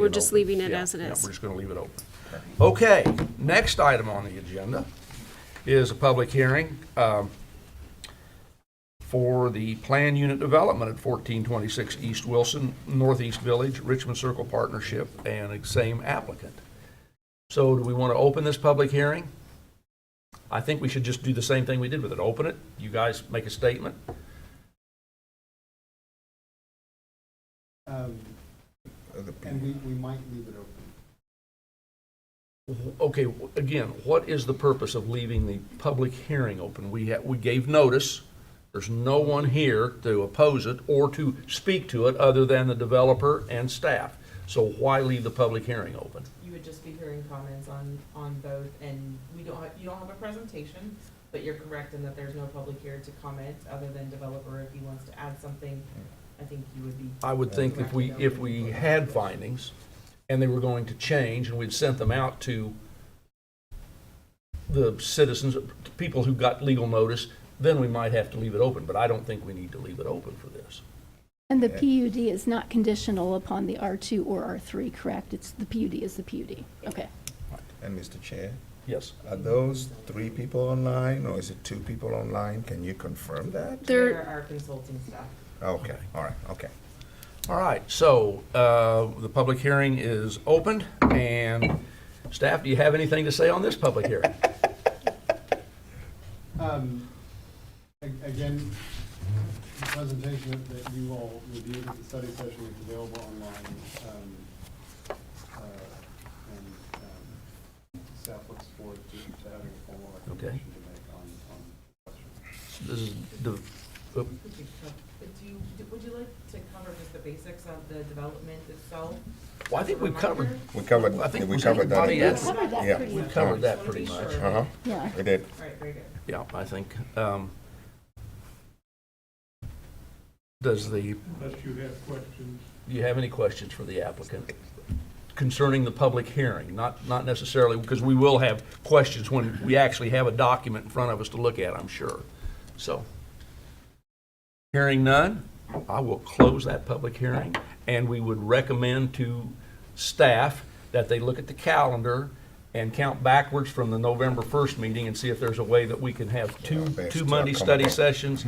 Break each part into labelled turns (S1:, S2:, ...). S1: We're just leaving it
S2: Yeah,
S1: as it
S2: yeah,
S1: is.
S2: We're just going to leave it open. Okay, next item on the agenda is a public hearing um, for the plan unit development at 1426 East Wilson, Northeast Village, Richmond Circle Partnership, and the same applicant. So do we want to open this public hearing? I think we should just do the same thing we did with it. Open it, you guys make a statement.
S3: Um, And we, we might leave it open.
S2: Okay, w- again, what is the purpose of leaving the public hearing open? We ha we gave notice, there's no one here to oppose it or to speak to it other than the developer and staff. So why leave the public hearing open?
S4: You would just be hearing comments on, on both, and we don't, you don't have a presentation, but you're correct in that there's no public here to comment, other than developer, if he wants to add something, I think you would be.
S2: I would think if we, if we had findings and they were going to change and we'd sent them out to the citizens, people who got legal notice, then we might have to leave it open, but I don't think we need to leave it open for this.
S5: And the PUD is not conditional upon the R2 or R3, correct? It's, the PUD is the PUD. Okay.
S6: And Mr. Chair,
S2: Yes?
S6: are those three people online or is it two people online? Can you confirm that?
S4: There are consulting staff.
S6: Okay, all right, okay.
S2: All right, so uh, the public hearing is opened, and staff, do you have anything to say on this public hearing?
S3: Um, a- Again, the presentation that- that you all reviewed at the study session is available online. um, uh, And um, staff looks forward to to having a formal recommendation to make on, on questions.
S2: This is the-
S4: Could you co- could you- Would you like to cover just the basics of the development itself?
S2: Well, I think we've covered,
S6: We covered,
S2: I think
S6: we
S2: was
S6: covered that.
S2: everybody
S6: in
S2: else?
S6: the-
S5: Covered that
S6: Yeah.
S5: pretty
S2: we've
S5: much.
S2: covered that pretty much.
S6: Uh-huh,
S5: Yeah.
S6: we did.
S4: All right, very good.
S2: Yeah, I think. um, Does the,
S7: unless you have questions.
S2: do you have any questions for the applicant concerning the public hearing? Not, not necessarily, because we will have questions when we actually have a document in front of us to look at, I'm sure. So, hearing none, I will close that public hearing, and we would recommend to staff that they look at the calendar and count backwards from the November 1st meeting and see if there's a way that we can have two,
S6: Yeah, based
S2: two
S6: on Mm-hmm.
S2: Monday
S6: come
S2: study
S6: up.
S2: sessions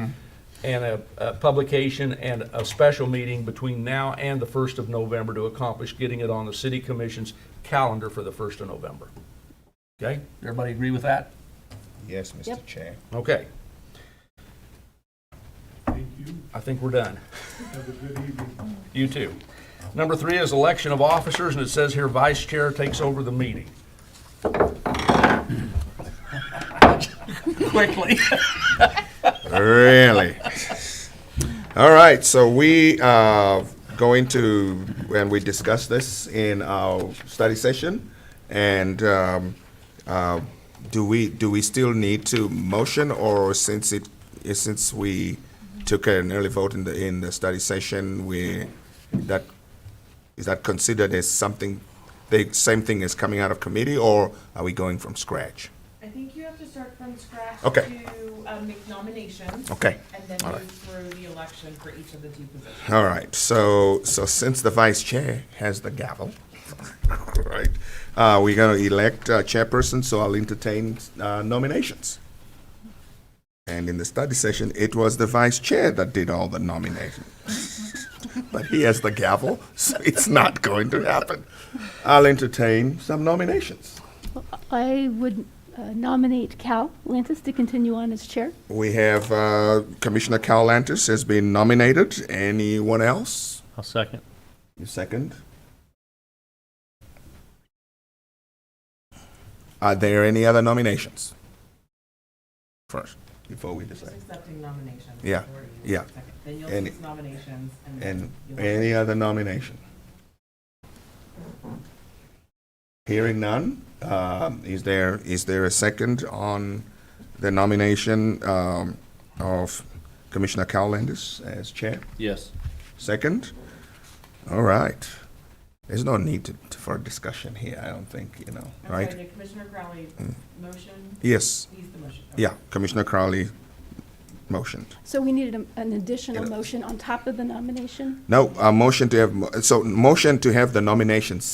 S2: and a, a publication and a special meeting between now and the 1st of November to accomplish getting it on the city commission's calendar for the 1st of November. Okay, everybody agree with that?
S6: Yes, Mr.
S5: Yep.
S6: Chair.
S2: Okay,
S7: Thank you.
S2: I think we're done.
S7: Have a good evening.
S2: You too. Number three is election of officers, and it says here vice chair takes over the meeting. Quickly.
S6: Really? All right, so we are going to, and we discussed this in our study session. And um, uh, do we, do we still need to motion or since it, since we took an early vote in the, in the study session, we, that, is that considered as something, the same thing as coming out of committee or are we going from scratch?
S4: I think you have to start from scratch
S6: Okay.
S4: to um, make nominations.
S6: Okay.
S4: And then
S6: All
S4: move
S6: right.
S4: through the election for each of the two positions.
S6: All right. So, so since the vice chair has the gavel, right, uh, we're going to elect a chairperson. So I'll entertain uh, nominations. And in the study session, it was the vice chair that did all the nominating. but he has the gavel, so it's not going to happen. I'll entertain some nominations.
S5: I would uh, nominate Cal Lantis to continue on as chair.
S6: We have uh, Commissioner Cal Lantis has been nominated. Anyone else?
S8: I'll second.
S6: You second? Are there any other nominations? First, before we
S4: Just
S6: decide.
S4: accepting nominations.
S6: Yeah,
S4: Or you-
S6: yeah.
S4: Then you'll
S6: And-
S4: list nominations and. then
S6: And
S4: you'll-
S6: any other nomination? Hearing none, um, is there, is there a second on the nomination um, of Commissioner Cowlandis as chair?
S8: Yes.
S6: Second? All right. There's no need to, to- for discussion here, I don't think, you know,
S4: I'm sorry,
S6: right? Mm.
S4: did Commissioner Crowley, motion,
S6: Yes,
S4: he's the motion. Okay.
S6: yeah, Commissioner Crowley motion.
S5: So we needed a- an additional
S6: Yeah.
S5: motion on top of the nomination?
S6: No, a motion to have, mo- so motion to have the nominations